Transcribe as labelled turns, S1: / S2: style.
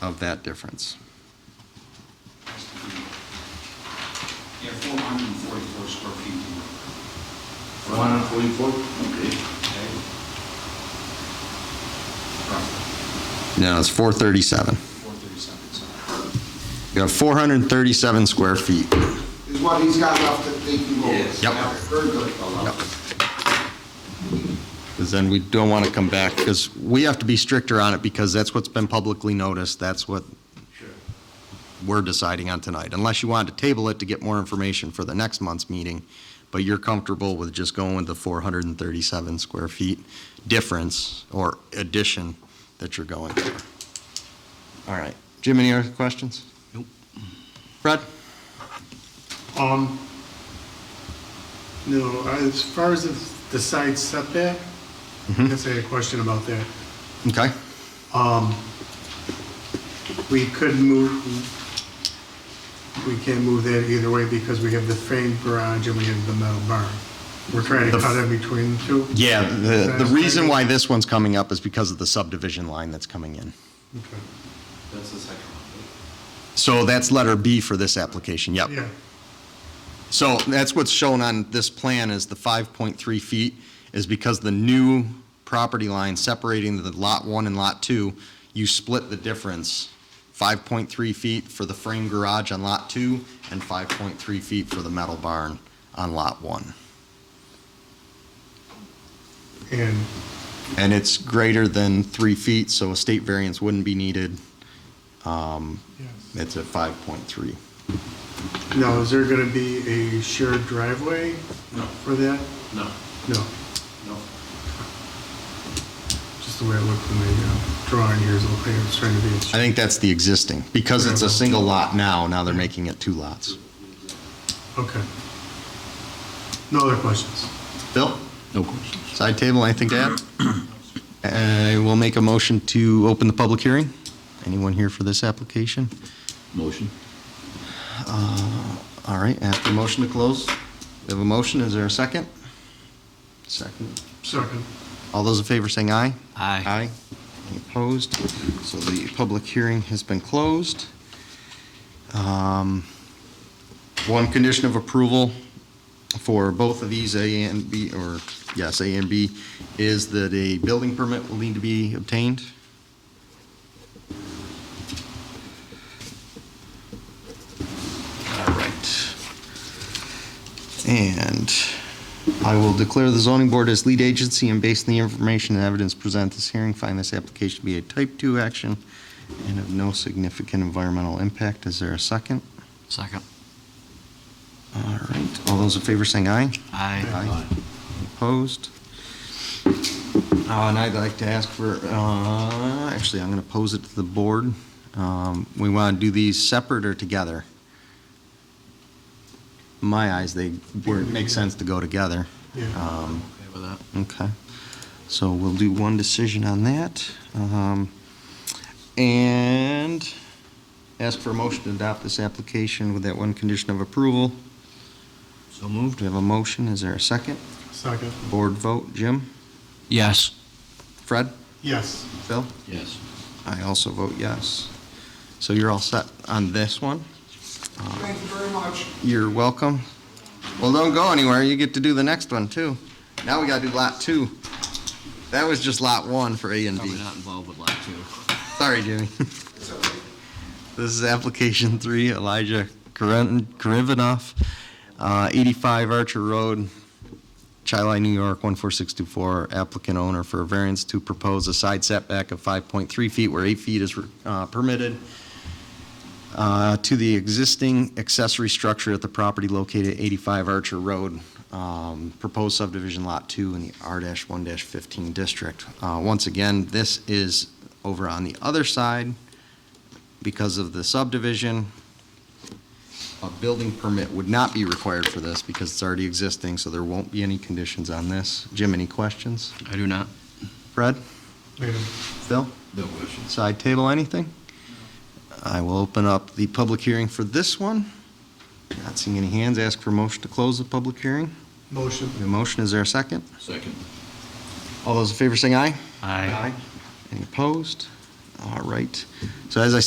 S1: of that difference.
S2: Yeah, four hundred and forty-four square feet. more,
S3: One hundred forty-four? Okay.
S2: okay? Roughly,
S1: No, it's 437.
S2: four thirty-seven, so.
S1: You have 437 square feet.
S2: Is what he's got left that they can go.
S3: Yes.
S1: Yep.
S2: Very good, fellow.
S1: Yep. Because then we don't want to come back, because we have to be stricter on it, because that's what's been publicly noticed, that's what
S3: Sure.
S1: we're deciding on tonight, unless you wanted to table it to get more information for the next month's meeting, but you're comfortable with just going with the 437 square feet difference or addition that you're going for. All right. Jim, any other questions?
S4: Nope.
S1: Fred?
S5: Um, no, as far as the- the side setback, I
S1: Mm-hmm.
S5: guess I had a question about that.
S1: Okay.
S5: We could move, we can't move that either way because we have the framed garage and we have the metal barn. We're trying to
S1: The-
S5: cut in between the two?
S1: Yeah, the, the
S5: That's
S1: reason
S5: right.
S1: why this one's coming up is because of the subdivision line that's coming in.
S5: Okay.
S3: That's the second one.
S1: So that's letter B for this application, yep.
S5: Yeah,
S1: So that's what's shown on this plan is the 5.3 feet is because the new property line separating the lot one and lot two, you split the difference, 5.3 feet for the frame garage on lot two and 5.3 feet for the metal barn on lot one.
S5: and,
S1: And it's greater than three feet, so a state variance wouldn't be needed. Um,
S5: yes.
S1: It's at 5.3.
S5: Now, is there going to be a shared driveway
S3: No.
S5: for that?
S3: No,
S5: No,
S3: no.
S5: just the way it looked in the uh, drawing here is the way it's trying to be.
S1: I think that's the existing, because it's a single lot now, now they're making it two lots.
S5: Okay. No other questions?
S1: Bill,
S4: No questions.
S1: side table, anything to add? I will make a motion to open the public hearing. Anyone here for this application? Uh,
S4: Motion?
S1: All right, after motion to close, we have a motion, is there a second? Second.
S5: Second.
S1: All those in favor saying aye? Aye. Any opposed? So the public hearing has been closed. Um, One condition of approval for both of these, A and B, or, yes, A and B, is that a building permit will need to be obtained. All right. And I will declare the zoning board as lead agency and based on the information and evidence presented at this hearing, find this application to be a type 2 action and of no significant environmental impact. Is there a second?
S4: Second.
S1: All right, all those in favor saying aye?
S4: Aye.
S1: Opposed? Uh, And I'd like to ask for, uh, actually, I'm going to pose it to the board. Um, We want to do these separate or together? In my eyes, they, were- it makes sense to go together.
S5: Yeah.
S1: Um,
S4: Okay with that?
S1: Okay, so we'll do one decision on that. um, And ask for a motion to adopt this application with that one condition of approval.
S4: So moved?
S1: Do we have a motion? Is there a second?
S5: Second.
S1: Board vote, Jim?
S4: Yes.
S1: Fred?
S5: Yes.
S1: Phil?
S4: Yes.
S1: I also vote yes. So you're all set on this one?
S2: Thank you very much.
S1: You're welcome. Well, don't go anywhere, you get to do the next one, too. Now we gotta do lot two. That was just lot one for A and B.
S4: Probably not involved with lot two.
S1: Sorry, Jimmy.
S2: It's okay.
S1: This is application three, Elijah Karivinoff, 85 Archer Road, Chi-Lai, New York, 14624, applicant owner for a variance to propose a side setback of 5.3 feet where 8 feet is uh, permitted uh, to the existing accessory structure at the property located at 85 Archer Road, um, proposed subdivision Lot 2 in the R-1-15 district. Uh, Once again, this is over on the other side because of the subdivision. A building permit would not be required for this because it's already existing, so there won't be any conditions on this. Jim, any questions?
S4: I do not.
S1: Fred?
S5: Made a
S1: Phil?
S3: No questions.
S1: Side table, anything? I will open up the public hearing for this one. Not seeing any hands. Ask for motion to close the public hearing.
S5: motion.
S1: The motion, is there a second?
S3: Second.
S1: All those in favor, saying aye. Any opposed? All right. So as I said.